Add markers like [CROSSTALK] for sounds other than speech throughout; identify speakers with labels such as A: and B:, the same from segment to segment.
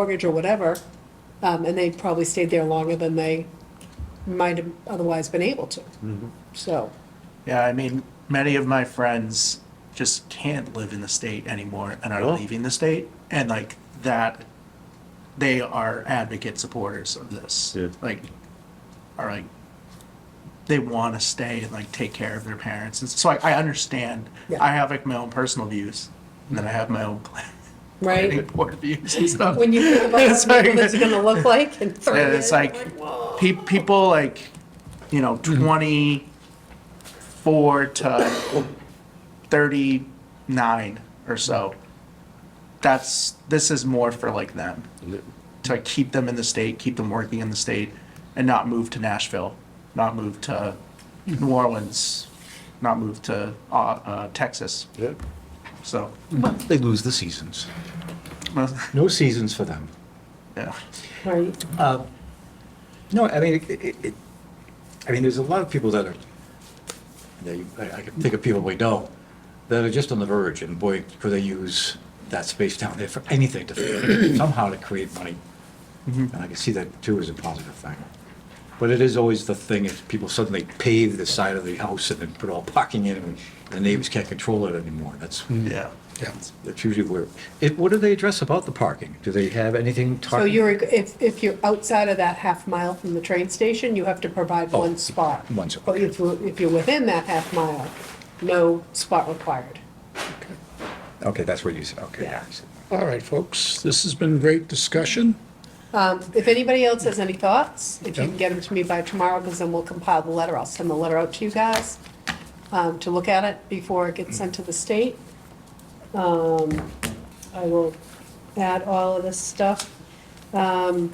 A: mortgage or whatever, um, and they probably stayed there longer than they might have otherwise been able to. So,
B: Yeah, I mean, many of my friends just can't live in the state anymore and are leaving the state. And like that, they are advocate supporters of this.
C: Yeah.
B: Like, are like, they want to stay and like take care of their parents. And so I, I understand.
A: Yeah.
B: I have like my own personal views and then I have my own [LAUGHS] plan- planning
A: right?
B: board views and stuff.
A: When you
D: [LAUGHS]
A: think about
B: It's
A: what
B: like-
A: Newfoundland's gonna look like in thirty
B: and
A: years.
B: it's like pe- people like you know 24 to 39 or so that's this is more for like them to keep them in the state keep them working in the state and not move to nashville not move to new orleans not move to uh, uh, texas
C: Yeah.
B: so [LAUGHS]
D: They lose the seasons.
B: well,
D: No seasons for them.
B: yeah
A: Right,
D: No, I mean, it, it- it, I mean, there's a lot of people that are, that you- I, I can think of people we know that are just on the verge, and boy, could they use that space down there for anything [CLEARS THROAT] to, somehow to create money. And I can see that too as a positive thing. But it is always the thing, if people suddenly pave the side of the house and then put all parking in, and the neighbors can't control it anymore, that's,
B: yeah
D: that's usually where, it, what do they address about the parking? Do they have anything?
A: so
D: talking-
A: you're, if, if you're outside of that half mile from the train station, you have to provide
D: Oh,
A: one spot.
D: one spot,
A: But if, you're- if you're within that half mile, no spot required.
D: Okay, that's what you said, okay.
A: Yeah.
E: All right, folks, this has been great discussion.
A: Um, If anybody else has any thoughts, if you can
E: Yeah.
A: get them to me by tomorrow, because then we'll compile the letter, I'll send the letter out to you guys um, to look at it before it gets sent to the state. Um, I will add all of this stuff. Um,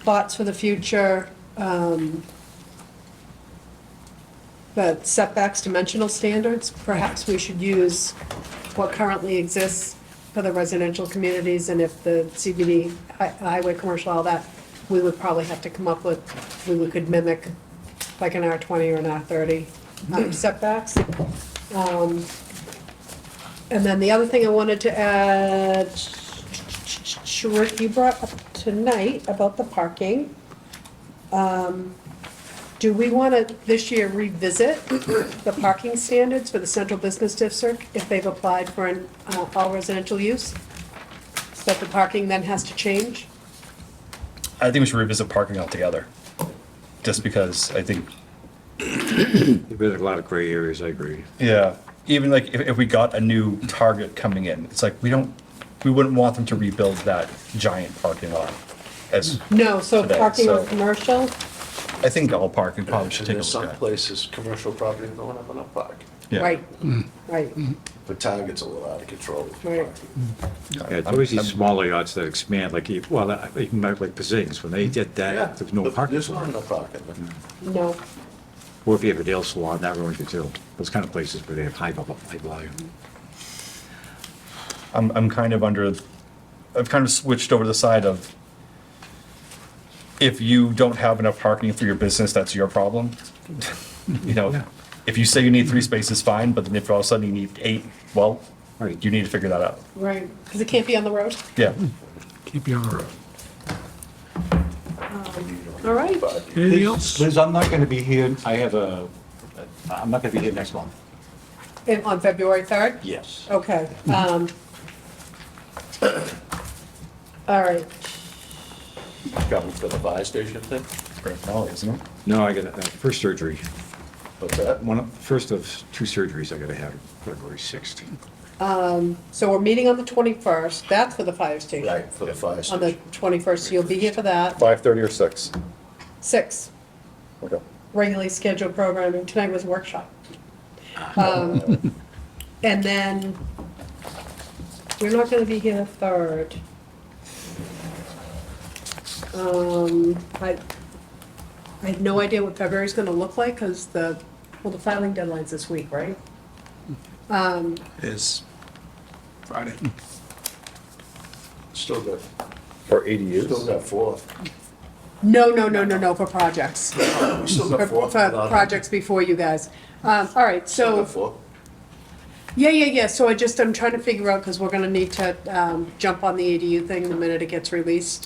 A: Thoughts for the future, um, the setbacks, dimensional standards, perhaps we should use what currently exists for the residential communities, and if the CBD hi- highway, commercial, all that, we would probably have to come up with, we would- could mimic like an R twenty or an R thirty setbacks. Um, And then the other thing I wanted to add, Rick, you brought up tonight about the parking. Do we want to this year revisit the parking standards for the central business district if they've applied for an uh, all residential use? That the parking then has to change?
F: I think we should revisit parking altogether. Just because I think,
D: There've been a lot of gray areas, I agree.
F: yeah, even like if, if we got a new target coming in, it's like, we don't, we wouldn't want them to rebuild that giant parking lot. As,
A: No, so
F: Today,
A: parking or
F: so-
A: commercial,
F: I think all parking probably should
G: And
F: take a
G: there's some
F: look at.
G: places, commercial property don't have enough parking.
F: Yeah.
A: right, right,
G: The town gets a little out of control. with
A: Right.
G: parking.
D: Yeah, it's always these smaller yachts that expand, like, you- well, I- even like like Pizzings, when they did
G: Yeah,
D: that, there was no
G: but
D: parking.
G: There's
D: for
G: not
D: it.
G: enough parking.
A: no,
D: Or if you have a nail salon, that ruins it too. Those kind of places where they have high, vol- high volume.
F: I'm, I'm kind of under, I've kind of switched over to the side of if you don't have enough parking for your business, that's your problem. [LAUGHS] You
D: Yeah.
F: know, if you say you need three spaces, fine, but then if all of a sudden you need eight, well,
D: Right.
F: you need to figure that out.
A: right, because it can't be on the road.
F: Yeah.
E: Keep you on the road.
A: All right,
E: Anything else?
D: Liz, I'm not gonna be here, I have a, I'm not gonna be here next month.
A: And on February 3rd?
D: Yes.
A: Okay. um, All right,
G: Coming for the fire station thing,
F: Grand Finale, isn't it?
D: No, I got, uh, first surgery,
G: but that,
D: one, of- first of two surgeries I gotta have February sixth.
A: so we're meeting on the 21st, that's for the fire station.
G: right, for the fire
A: On the
G: station.
A: 21st, you'll be here for that.
H: Five thirty or six?
A: Six,
H: Okay.
A: regularly scheduled programming. Tonight was workshop. Um, And then, we're not gonna be here the third. Um, I, I have no idea what February's gonna look like, because the, well, the filing deadline's this week, right?
B: is friday
G: Still got,
H: For
G: still
H: ADUs?
G: got four.
A: No, no, no, no, no, for projects.
G: We still
A: For
G: got four.
A: for projects before you guys. Um, All right,
G: Still
A: so.
G: got four.
A: Yeah, yeah, yeah, so I just, I'm trying to figure out, because we're gonna need to um, jump on the ADU thing the minute it gets released.